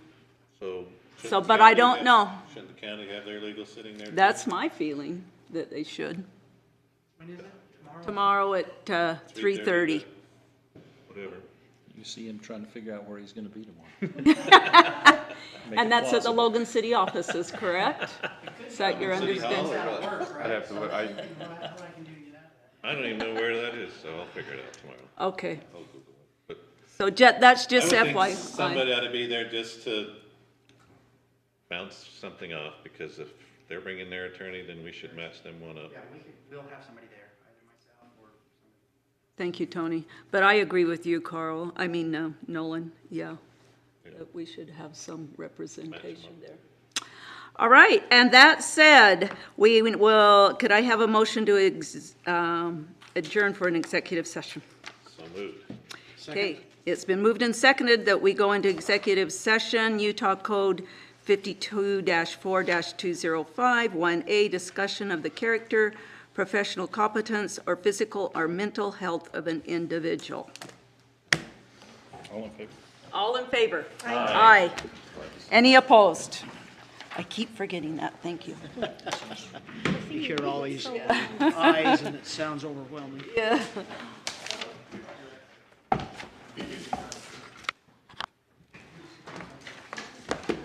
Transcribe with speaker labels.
Speaker 1: So. shouldn't
Speaker 2: So,
Speaker 1: the
Speaker 2: but I
Speaker 1: county
Speaker 2: don't
Speaker 1: have-
Speaker 2: know.
Speaker 1: Shouldn't the county have their legal sitting there? too?
Speaker 2: That's my feeling, that they should. Tomorrow at uh, 3:30.
Speaker 1: Whatever.
Speaker 3: You see him trying to figure out where he's gonna be tomorrow. Make it
Speaker 2: And that's at the
Speaker 3: plausible.
Speaker 2: Logan City offices, correct? Is that your
Speaker 1: City Hall
Speaker 2: understanding?
Speaker 1: or what?
Speaker 4: I'd have to, look. I,
Speaker 1: I don't even know where that is, so I'll figure it out tomorrow.
Speaker 2: Okay,
Speaker 1: I'll Google it. But
Speaker 2: so Jet, that's
Speaker 1: I
Speaker 2: just
Speaker 1: would think
Speaker 2: FYI.
Speaker 1: Somebody ought to be there just to bounce something off, because if they're bringing their attorney, then we should match them one up.
Speaker 4: yeah, we could, we'll have somebody there, either myself or somebody.
Speaker 2: Thank you, Tony. But I agree with you, Carl, I mean, uh, Nolan, yeah. That we should have some representation there. All right, and that said, we will, could I have a motion to ex- um, adjourn for an executive session?
Speaker 1: So moved.
Speaker 2: Okay, it's been moved and seconded that we go into executive session, Utah Code 52-4-205, 1A, discussion of the character, professional competence, or physical or mental health of an individual.
Speaker 3: All in favor?
Speaker 2: All in favor? Aye. Any opposed? I keep forgetting that, thank you.
Speaker 5: You hear all these eyes and it sounds overwhelming.